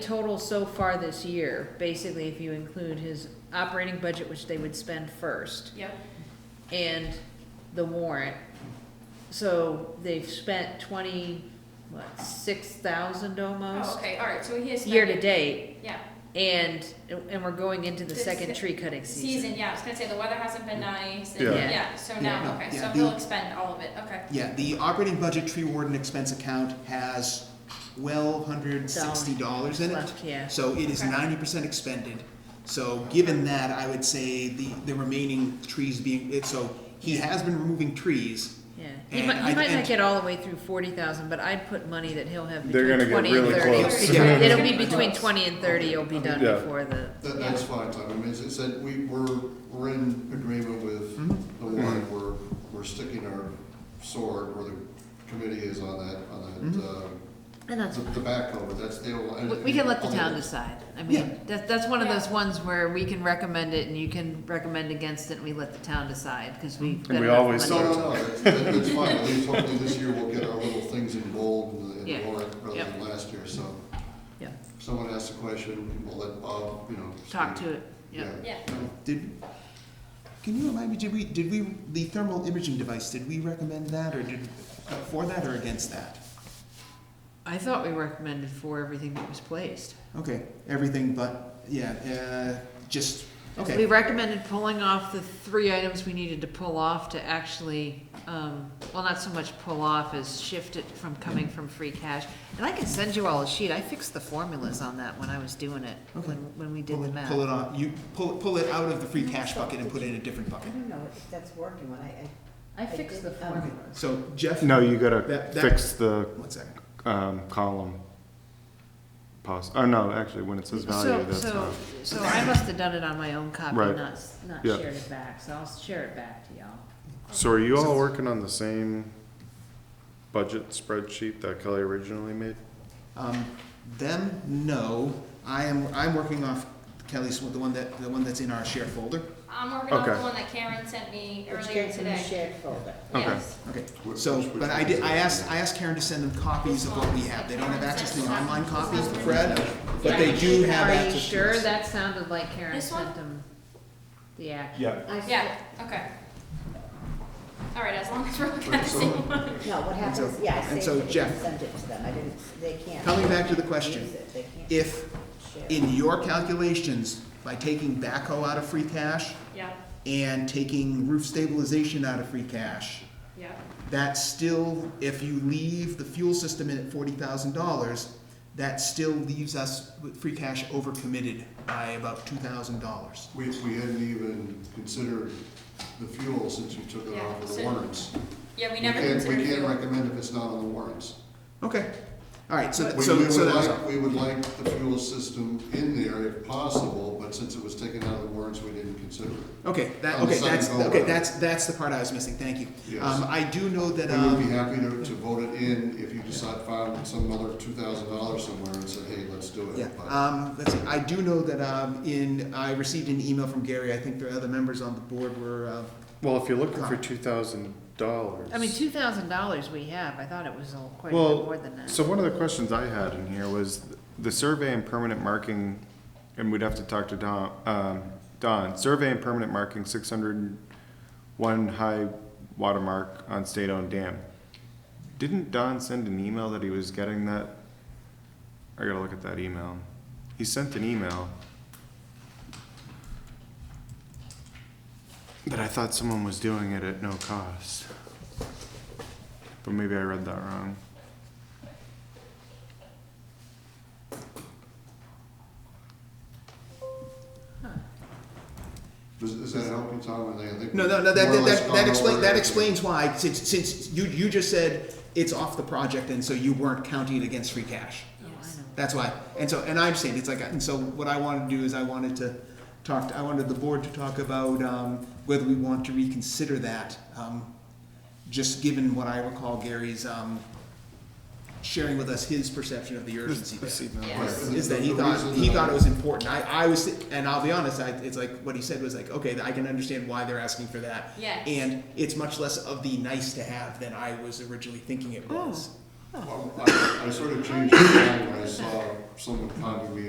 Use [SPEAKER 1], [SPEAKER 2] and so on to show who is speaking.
[SPEAKER 1] total so far this year, basically if you include his operating budget, which they would spend first,
[SPEAKER 2] Yep,
[SPEAKER 1] and the warrant. So they've spent twenty, what, six thousand
[SPEAKER 2] oh,
[SPEAKER 1] almost,
[SPEAKER 2] okay, all right, so he has. spent
[SPEAKER 1] year to
[SPEAKER 2] it.
[SPEAKER 1] date,
[SPEAKER 2] Yeah,
[SPEAKER 1] and, and we're going into the
[SPEAKER 2] This-
[SPEAKER 1] second tree cutting
[SPEAKER 2] season, yeah, I was gonna say, the weather hasn't been nice, and,
[SPEAKER 3] Yeah.
[SPEAKER 1] Yeah.
[SPEAKER 2] yeah, so
[SPEAKER 3] Yeah,
[SPEAKER 2] now,
[SPEAKER 3] no,
[SPEAKER 2] okay,
[SPEAKER 3] yeah,
[SPEAKER 2] so
[SPEAKER 3] the-
[SPEAKER 2] he'll expend all of it, okay.
[SPEAKER 3] Yeah, the operating budget tree warden expense account has twelve hundred sixty dollars in it.
[SPEAKER 1] left, yeah.
[SPEAKER 3] So it is
[SPEAKER 2] Okay.
[SPEAKER 3] ninety percent expended. So given that, I would say the, the remaining trees being, it, so he has been removing trees.
[SPEAKER 1] Yeah, he
[SPEAKER 3] And
[SPEAKER 1] might,
[SPEAKER 3] I-
[SPEAKER 1] he might
[SPEAKER 3] and-
[SPEAKER 1] not get all the way through forty thousand, but I'd put money that he'll have
[SPEAKER 4] They're
[SPEAKER 1] between
[SPEAKER 4] gonna get
[SPEAKER 1] twenty and
[SPEAKER 4] really
[SPEAKER 1] thirty.
[SPEAKER 4] close.
[SPEAKER 3] Yeah.
[SPEAKER 1] It'll be
[SPEAKER 2] Yeah.
[SPEAKER 1] between twenty and thirty, it'll be done
[SPEAKER 4] Yeah.
[SPEAKER 1] before the,
[SPEAKER 5] That, that's fine, Tom, I mean, it's, it's that we, we're, we're in agreement with
[SPEAKER 1] Mm-hmm.
[SPEAKER 5] the warrant, we're, we're sticking our sword where the committee is on that, on that, uh,
[SPEAKER 1] and that's,
[SPEAKER 5] the the backhoe, but that's the.
[SPEAKER 1] Mm-hmm. we, we can let the town decide. I
[SPEAKER 3] Yeah.
[SPEAKER 1] mean, that's, that's one of
[SPEAKER 2] Yeah.
[SPEAKER 1] those ones where we can recommend it and you can recommend against it and we let the town decide, cause we.
[SPEAKER 4] And we always
[SPEAKER 5] No, no, no, that's, that- that's fine, at least hopefully this year we'll get our little things in bold in the- in
[SPEAKER 1] Yeah.
[SPEAKER 5] the warrant rather
[SPEAKER 1] Yep.
[SPEAKER 5] than last year, so.
[SPEAKER 1] Yeah,
[SPEAKER 5] if Someone asks a question, we'll let Bob, you know.
[SPEAKER 1] talk
[SPEAKER 5] speak.
[SPEAKER 1] to it, yeah.
[SPEAKER 2] Yeah.
[SPEAKER 3] Did, can you remind me, did we, did we, the thermal imaging device, did we recommend that or did, for that or against that?
[SPEAKER 1] I thought we recommended for everything that was placed.
[SPEAKER 3] Okay, everything but, yeah, uh, just, okay.
[SPEAKER 1] We recommended pulling off the three items we needed to pull off to actually, um, well, not so much pull off as shift it from coming from free cash. And I can send you all a sheet, I fixed the formulas on that when I was doing it,
[SPEAKER 3] Okay.
[SPEAKER 1] when, when we did
[SPEAKER 3] Pull
[SPEAKER 1] the
[SPEAKER 3] it-
[SPEAKER 1] math.
[SPEAKER 3] Pull it on, you, pull, pull it out of the free cash bucket and put it in a different
[SPEAKER 6] I
[SPEAKER 3] bucket.
[SPEAKER 6] don't know if that's working when I, I.
[SPEAKER 1] I fixed the
[SPEAKER 6] did, um,
[SPEAKER 3] Okay,
[SPEAKER 1] formulas.
[SPEAKER 3] so Jeff.
[SPEAKER 4] No, you gotta
[SPEAKER 3] That- that-
[SPEAKER 4] fix the,
[SPEAKER 3] One second.
[SPEAKER 4] um, column. Poss, oh, no, actually, when it says value,
[SPEAKER 1] So,
[SPEAKER 4] that's
[SPEAKER 1] so,
[SPEAKER 4] not.
[SPEAKER 1] so I must have done it on my own copy,
[SPEAKER 4] Right.
[SPEAKER 1] not, s- not
[SPEAKER 4] Yeah.
[SPEAKER 1] shared it back, so I'll share it back to y'all.
[SPEAKER 4] So are you all working on the same budget spreadsheet that Kelly originally made?
[SPEAKER 3] Um, them, no. I am, I'm working off Kelly's, the one that, the one that's in our shared folder.
[SPEAKER 2] I'm working on the
[SPEAKER 4] Okay.
[SPEAKER 2] one that Karen sent me
[SPEAKER 6] Which
[SPEAKER 2] earlier
[SPEAKER 6] came from the
[SPEAKER 2] today.
[SPEAKER 6] shared folder.
[SPEAKER 4] Okay.
[SPEAKER 2] Yes,
[SPEAKER 3] Okay,
[SPEAKER 5] Which-
[SPEAKER 3] so,
[SPEAKER 5] which- which
[SPEAKER 3] but I
[SPEAKER 5] one
[SPEAKER 3] did,
[SPEAKER 5] is
[SPEAKER 3] I
[SPEAKER 5] it?
[SPEAKER 3] asked, I asked Karen to send them copies of what we have. They don't have access to the online copies, Fred, but they do have
[SPEAKER 1] Are
[SPEAKER 3] access to.
[SPEAKER 1] you sure
[SPEAKER 3] this.
[SPEAKER 1] that sounded like Karen
[SPEAKER 2] This one?
[SPEAKER 1] sent them the act?
[SPEAKER 4] Yeah.
[SPEAKER 6] I
[SPEAKER 2] yeah, okay. All right, as long as we're looking at the
[SPEAKER 5] So-
[SPEAKER 2] same one.
[SPEAKER 6] said- No, what happens,
[SPEAKER 3] so-
[SPEAKER 6] yeah, I
[SPEAKER 3] and so,
[SPEAKER 6] saved it
[SPEAKER 3] Jeff,
[SPEAKER 6] and sent it to them, I didn't, they can't.
[SPEAKER 3] coming back to the
[SPEAKER 6] they can't
[SPEAKER 3] question,
[SPEAKER 6] use it, they can't
[SPEAKER 3] If,
[SPEAKER 6] share.
[SPEAKER 3] in your calculations, by taking backhoe out of free cash
[SPEAKER 2] Yeah,
[SPEAKER 3] and taking roof stabilization out of free cash,
[SPEAKER 2] yeah,
[SPEAKER 3] that still, if you leave the fuel system in at forty thousand dollars, that still leaves us with free cash overcommitted by about two thousand dollars.
[SPEAKER 5] We, we hadn't even considered the fuel since you took it
[SPEAKER 2] Yeah,
[SPEAKER 5] off of the
[SPEAKER 2] so-
[SPEAKER 5] warrants.
[SPEAKER 2] yeah, we
[SPEAKER 5] We
[SPEAKER 2] never
[SPEAKER 5] can't,
[SPEAKER 2] considered
[SPEAKER 5] we
[SPEAKER 2] fuel.
[SPEAKER 5] can't recommend if it's not on the warrants.
[SPEAKER 3] Okay, all right, so,
[SPEAKER 5] We, we
[SPEAKER 3] so, so
[SPEAKER 5] would
[SPEAKER 3] that was all.
[SPEAKER 5] like, we would like the fuel system in there if possible, but since it was taken out of the warrants, we didn't consider it.
[SPEAKER 3] Okay, that,
[SPEAKER 5] On the
[SPEAKER 3] okay, that's,
[SPEAKER 5] second go
[SPEAKER 3] okay,
[SPEAKER 5] around.
[SPEAKER 3] that's, that's the part I was missing, thank you.
[SPEAKER 5] Yes.
[SPEAKER 3] Um, I do know that,
[SPEAKER 5] We would be
[SPEAKER 3] um,
[SPEAKER 5] happy to, to vote it in if you decide found some other two thousand dollars somewhere and said, hey, let's do it.
[SPEAKER 3] yeah,
[SPEAKER 5] But-
[SPEAKER 3] um, let's see, I do know that, um, in, I received an email from Gary, I think the other members on the board were, uh,
[SPEAKER 4] Well, if you're looking for two thousand dollars.
[SPEAKER 1] I mean, two thousand dollars we have, I thought it was a- quite a
[SPEAKER 4] Well,
[SPEAKER 1] bit more than that.
[SPEAKER 4] So one of the questions I had in here was the survey and permanent marking, and we'd have to talk to Don, um, Don, survey and permanent marking six hundred one high watermark on state-owned dam. Didn't Don send an email that he was getting that? I gotta look at that email. He sent an email that I thought someone was doing it at no cost. But maybe I read that wrong.
[SPEAKER 5] Does, does that help you, Tom? I think- I think
[SPEAKER 3] No, no,
[SPEAKER 5] we've
[SPEAKER 3] no. That
[SPEAKER 5] more or
[SPEAKER 3] that,
[SPEAKER 5] less
[SPEAKER 3] that,
[SPEAKER 5] gone
[SPEAKER 3] that,
[SPEAKER 5] over
[SPEAKER 3] explain, that
[SPEAKER 5] everything.
[SPEAKER 3] explains why. Since since you you just said it's off the project, and so you weren't counting it against free cash.
[SPEAKER 1] Oh, I
[SPEAKER 2] Yes.
[SPEAKER 1] know.
[SPEAKER 3] That's why. And so and I'm saying it's like and so what I wanted to do is I wanted to talk. To, I wanted the board to talk about um, whether we want to reconsider that. Um, just given what I recall, Gary's um, sharing with us his perception of the urgency. there
[SPEAKER 4] This email.
[SPEAKER 2] Yeah.
[SPEAKER 5] Right.
[SPEAKER 2] Yes.
[SPEAKER 3] is that he
[SPEAKER 5] The
[SPEAKER 3] thought
[SPEAKER 5] reason
[SPEAKER 3] he
[SPEAKER 5] that I-
[SPEAKER 3] thought it was important. I, I was, and I'll be honest, I, it's like what he said was like, okay, I can understand why they're asking for that.
[SPEAKER 2] Yes.
[SPEAKER 3] And it's much less of the nice to have than I was originally thinking it was.
[SPEAKER 1] Oh,
[SPEAKER 5] Well, I I sort of changed my mind when I saw someone copy me